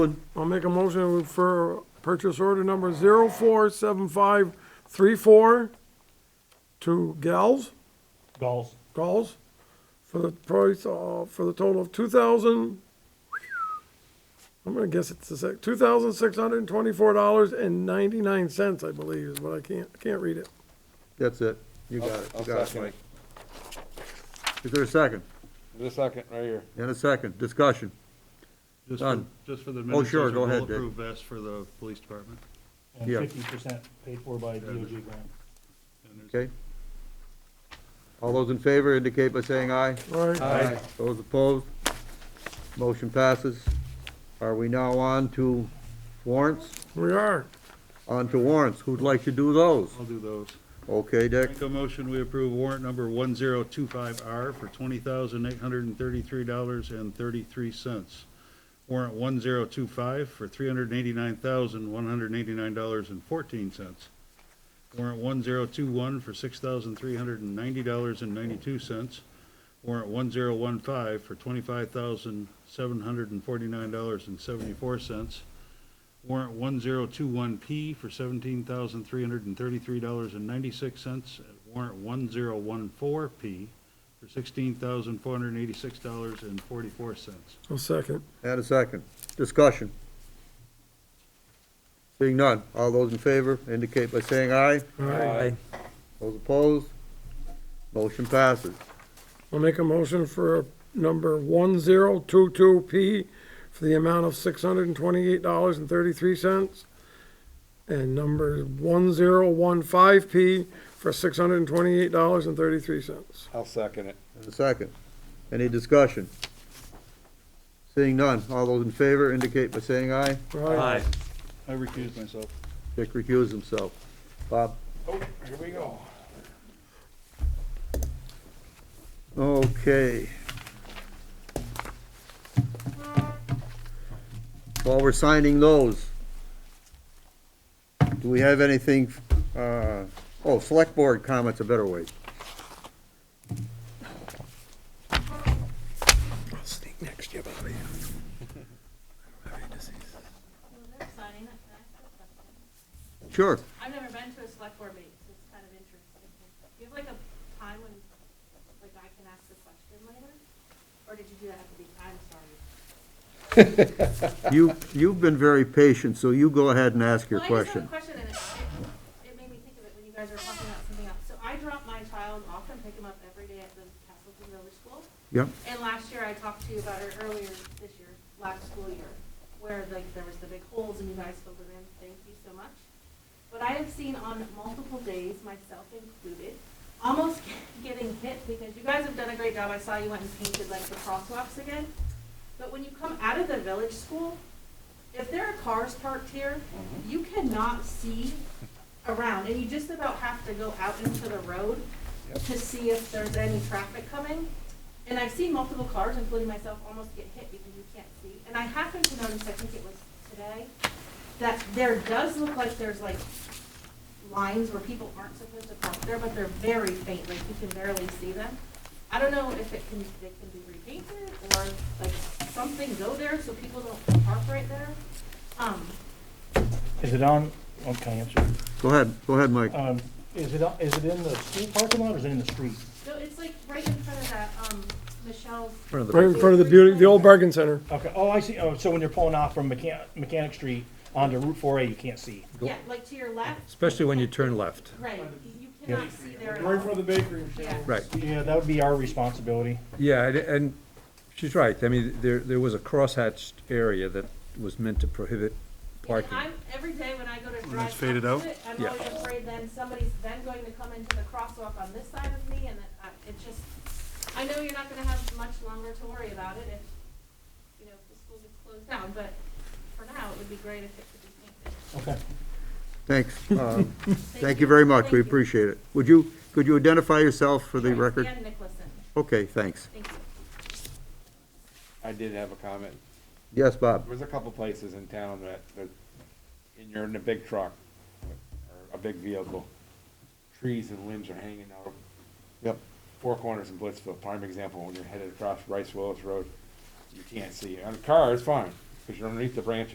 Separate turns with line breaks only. I'll make a motion to refer purchase order number zero four seven five three four to Gals,
Goals.
Gals, for the price, uh, for the total of two thousand, I'm gonna guess it's the sec, two thousand six hundred and twenty-four dollars and ninety-nine cents, I believe, is what I can't, I can't read it.
That's it. You got it.
I'll
You got it,
second
Mike.
it.
Is there a second?
The second, right here.
And a second. Discussion.
Just for,
Done. Oh,
just for the minutes.
sure,
there's a
go ahead, Dick.
Bulletproof vest for the police department.
And
Yeah.
fifty percent paid for by DOG grant.
And there's-
Okay? All those in favor indicate by saying aye.
All right.
Those opposed? Motion passes. Are we now on to warrants?
We are.
On to warrants. Who'd like to do those?
I'll do those.
Okay, Dick?
Make a motion, we approve warrant number one zero two five R for twenty thousand eight hundred and thirty-three dollars and thirty-three cents. Warrant one zero two five for three hundred and eighty-nine thousand one hundred and eighty-nine dollars and fourteen cents. Warrant one zero two one for six thousand three hundred and ninety dollars and ninety-two cents. Warrant one zero one five for twenty-five thousand seven hundred and forty-nine dollars and seventy-four cents. Warrant one zero two one P for seventeen thousand three hundred and thirty-three dollars and ninety-six cents. Warrant one zero one four P for sixteen thousand four hundred and eighty-six dollars and forty-four cents.
A second.
And a second. Discussion. Seeing none. All those in favor indicate by saying aye.
All right.
Those opposed? Motion passes.
I'll make a motion for number one zero two two P for the amount of six hundred and twenty-eight dollars and thirty-three cents. And number one zero one five P for six hundred and twenty-eight dollars and thirty-three cents.
I'll second it.
And a second. Any discussion? Seeing none, all those in favor indicate by saying aye.
Right.
I recuse myself.
Dick recused himself. Bob?
Oh, here we go.
Okay. While we're signing those, do we have anything, uh, oh, select board comments, a better way.
I'll sneak next to you, Bobby.
Signing up for that.
Sure.
I've never been to a select board meeting, so it's kind of interesting. Do you have like a time when, like, I can ask a question later? Or did you do that at the, I'm sorry.
You, you've been very patient, so you go ahead and ask your
Well, I just have
question.
a question, and it, it- it made me think of it when you guys were talking about something else. So I drop my child off and pick him up every day at the Castleton Village School.
Yep.
And last year, I talked to you about it earlier this year, last school year, where like there was the big holes and you guys filled it in. Thank you so much. But I have seen on multiple days, myself included, almost getting hit because you guys have done a great job. I saw you went and painted like the crosswalks again. But when you come out of the village school, if there are cars parked here, you cannot see around and you just about have to go out into the road to see if there's any traffic coming. And I've seen multiple cars, including myself, almost get hit because you can't see. And I happened to notice, I think it was today, that there does look like there's like lines where people aren't supposed to park there, but they're very faint, like you can barely see them. I don't know if it can, they can be repainted or like something go there so people don't park right there. Um,
Is it on, okay, answer.
Go ahead, go ahead, Mike.
Um, is it, on- is it in the school parking lot or is it in the street?
so it's like right in front of that, um, Michelle's,
Right in front of the beauty, the old bargain center.
Okay, oh, I see, oh, so when you're pulling off from Mechanic, Mechanic Street onto Route four A, you can't see.
yeah, like to your left,
Especially when you turn left.
right, you cannot see there at all.
the bakery.
Yeah.
Right.
Yeah, that would be our responsibility.
Yeah, and- and she's right. I mean, there, there was a crosshatched area that was meant to prohibit
And
parking.
I'm, every day when I go to drive
it's faded
up
out?
to it, I'm
Yeah.
always afraid then somebody's then going to come into the crosswalk on this side of me and it, I- it just, I know you're not gonna have much longer to worry about it if, you know, if the school gets closed down, but for now, it would be great if it could be painted.
Okay.
Thanks. Uh, Thank you very much. We
Thank you.
appreciate it. Would you, could you identify yourself for the
Sorry,
record?
Ann Nicholson,
Okay, thanks.
thank you.
I did have a comment.
Yes, Bob?
There's a couple places in town that, that, and you're in a big truck, or a big vehicle, trees and limbs are hanging out.
Yep.
Four corners in Blitzville, prime example, when you're headed across Rice Willis Road, you can't see. On a car, it's fine, because you're underneath the branches.